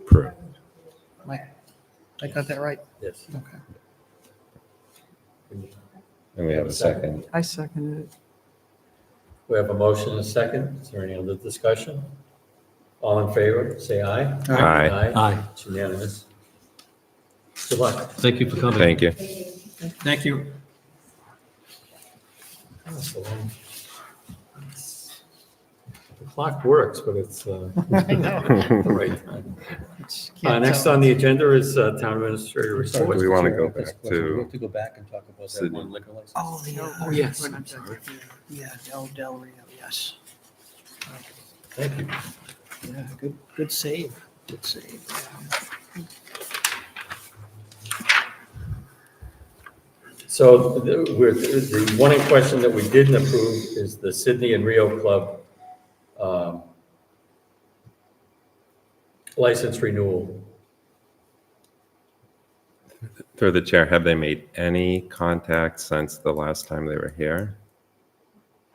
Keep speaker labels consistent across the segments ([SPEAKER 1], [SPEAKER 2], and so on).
[SPEAKER 1] approved.
[SPEAKER 2] I got that right.
[SPEAKER 3] Yes.
[SPEAKER 2] Okay.
[SPEAKER 1] And we have a second.
[SPEAKER 4] I seconded it.
[SPEAKER 3] We have a motion and a second. Is there any other discussion? All in favor, say aye.
[SPEAKER 1] Aye.
[SPEAKER 5] Aye.
[SPEAKER 3] It's unanimous. Good luck.
[SPEAKER 5] Thank you for coming.
[SPEAKER 1] Thank you.
[SPEAKER 5] Thank you.
[SPEAKER 3] The clock works, but it's uh, the right time.
[SPEAKER 2] It's-
[SPEAKER 3] Uh,
[SPEAKER 2] can't
[SPEAKER 3] Next
[SPEAKER 2] tell.
[SPEAKER 3] on the agenda is uh, Town Administrator
[SPEAKER 1] Do
[SPEAKER 3] Report.
[SPEAKER 1] we want to
[SPEAKER 6] Chair,
[SPEAKER 1] go
[SPEAKER 6] that's a
[SPEAKER 1] back
[SPEAKER 6] question. We
[SPEAKER 1] to,
[SPEAKER 6] have To go back and talk about that
[SPEAKER 1] Sydney.
[SPEAKER 6] one liquor license.
[SPEAKER 2] Oh, the.
[SPEAKER 5] Oh, yes,
[SPEAKER 2] when
[SPEAKER 5] I'm
[SPEAKER 2] I'm done.
[SPEAKER 5] sorry.
[SPEAKER 2] Yeah, Del, Del Rio, yes.
[SPEAKER 3] Thank you.
[SPEAKER 2] Yeah, good, good save, good save.
[SPEAKER 3] So the we're- the one in question that we didn't approve is the Sydney and Rio Club um, license renewal.
[SPEAKER 1] through the chair, have they made any contact since the last time they were here?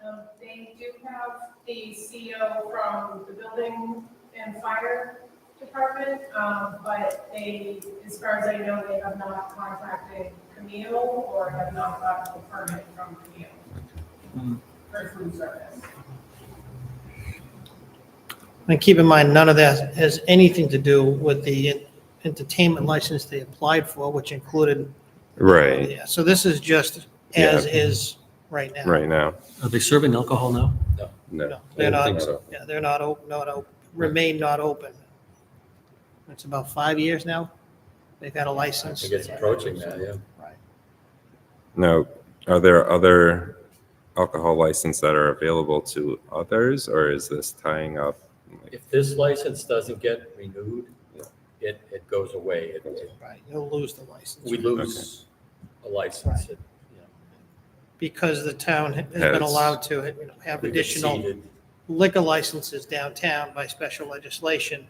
[SPEAKER 7] Um, They do have the CO from the building and fire department, um, but they, as far as I know, they have not contacted Camille or have not gotten a permit from Camille for food service.
[SPEAKER 2] And keep in mind, none of that has anything to do with the entertainment license they applied for, which included.
[SPEAKER 1] Right,
[SPEAKER 2] Yeah, So this is just as is right now.
[SPEAKER 1] right now.
[SPEAKER 5] Are they serving alcohol now?
[SPEAKER 1] No.
[SPEAKER 2] No, They're
[SPEAKER 1] I
[SPEAKER 2] not,
[SPEAKER 1] think so.
[SPEAKER 2] yeah, they're not open, not open, remain not open. It's about five years now. They've had a
[SPEAKER 3] I
[SPEAKER 2] license.
[SPEAKER 3] think it's approaching that, yeah.
[SPEAKER 1] Now, are there other alcohol licenses that are available to others, or is this tying up? like,
[SPEAKER 3] If this license doesn't get renewed, it, it goes away. It- it-
[SPEAKER 2] Right, you'll lose the license.
[SPEAKER 3] We lose a license. It- you know,
[SPEAKER 2] Because the town has
[SPEAKER 1] Has-
[SPEAKER 2] been allowed to, you know, have
[SPEAKER 3] we've
[SPEAKER 2] additional
[SPEAKER 3] exceeded-
[SPEAKER 2] liquor licenses downtown by special legislation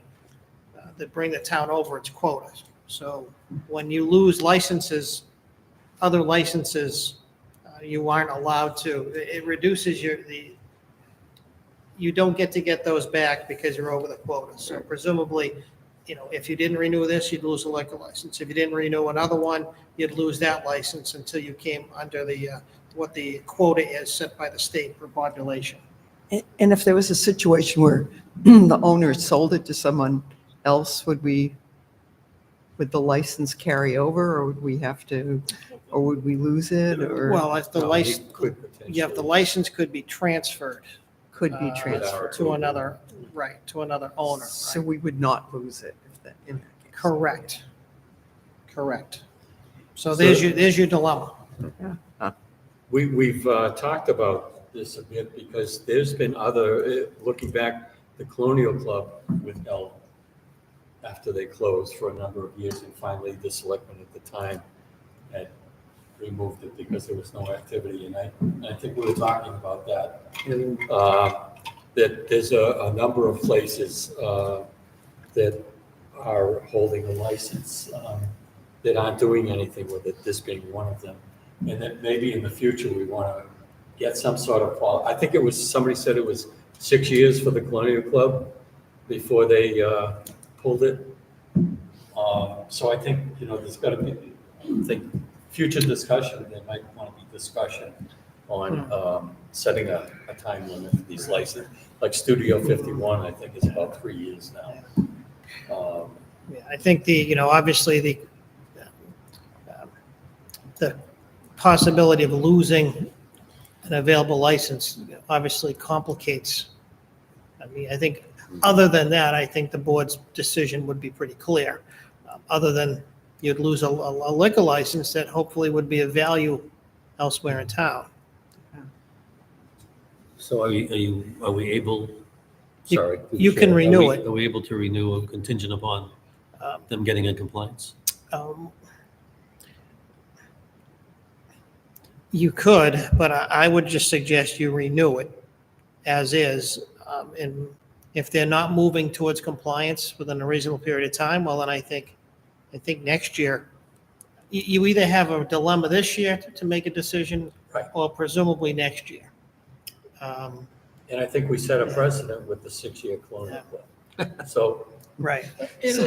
[SPEAKER 2] uh, that bring the town over its quotas. So when you lose licenses, other licenses, uh, you aren't allowed to, it it reduces your, the, you don't get to get those back because you're over the quota. So presumably, you know, if you didn't renew this, you'd lose a liquor license. If you didn't renew another one, you'd lose that license until you came under the, uh, what the quota is set by the state for population.
[SPEAKER 4] A- And if there was a situation where the owner sold it to someone else, would we, would the license carry over or would we have to, or would we lose it or
[SPEAKER 2] Well, if the
[SPEAKER 3] No, you
[SPEAKER 2] license,
[SPEAKER 3] could
[SPEAKER 2] yeah, if the
[SPEAKER 3] potentially-
[SPEAKER 2] license could be transferred.
[SPEAKER 4] could be
[SPEAKER 2] uh,
[SPEAKER 4] transferred?
[SPEAKER 2] To another, right, to another owner,
[SPEAKER 4] So
[SPEAKER 2] right?
[SPEAKER 4] we would not lose it. if that- in that case.
[SPEAKER 2] Correct. Correct. So there's your, there's your dilemma.
[SPEAKER 3] We, we've uh, talked about this a bit because there's been other, uh, looking back, the Colonial Club with L after they closed for a number of years and finally the selectmen at the time had removed it because there was no activity. And I, and I think we were talking about that. Uh, That there's a, a number of places uh, that are holding a license um, that aren't doing anything with it, this being one of them. And that maybe in the future, we want to get some sort of, qual- I think it was, somebody said it was six years for the Colonial Club before they uh, pulled it. Um, So I think, you know, there's got to be, I think, future discussion, there might want to be discussion on um, setting a, a time limit for these licenses. Like Studio 51, I think is about three years now. Um,
[SPEAKER 2] Yeah, I think the, you know, obviously the, um, the possibility of losing an available license obviously complicates. I mean, I think, other than that, I think the board's decision would be pretty clear. Um, Other than you'd lose a a liquor license that hopefully would be of value elsewhere in town.
[SPEAKER 5] So are you, are you, are we able,
[SPEAKER 2] You-
[SPEAKER 5] sorry?
[SPEAKER 2] you can
[SPEAKER 5] Are we-
[SPEAKER 2] renew it.
[SPEAKER 5] Are we able to renew a contingent upon
[SPEAKER 2] Um,
[SPEAKER 5] them getting in compliance?
[SPEAKER 2] Um, You could, but I, I would just suggest you renew it as is. Um, and if they're not moving towards compliance within a reasonable period of time, well, then I think, I think next year, you, you either have a dilemma this year to- to make a decision
[SPEAKER 3] Right.
[SPEAKER 2] or presumably next year. Um,
[SPEAKER 3] And I think we set a precedent with the six-year Colonial Club. So
[SPEAKER 2] Right.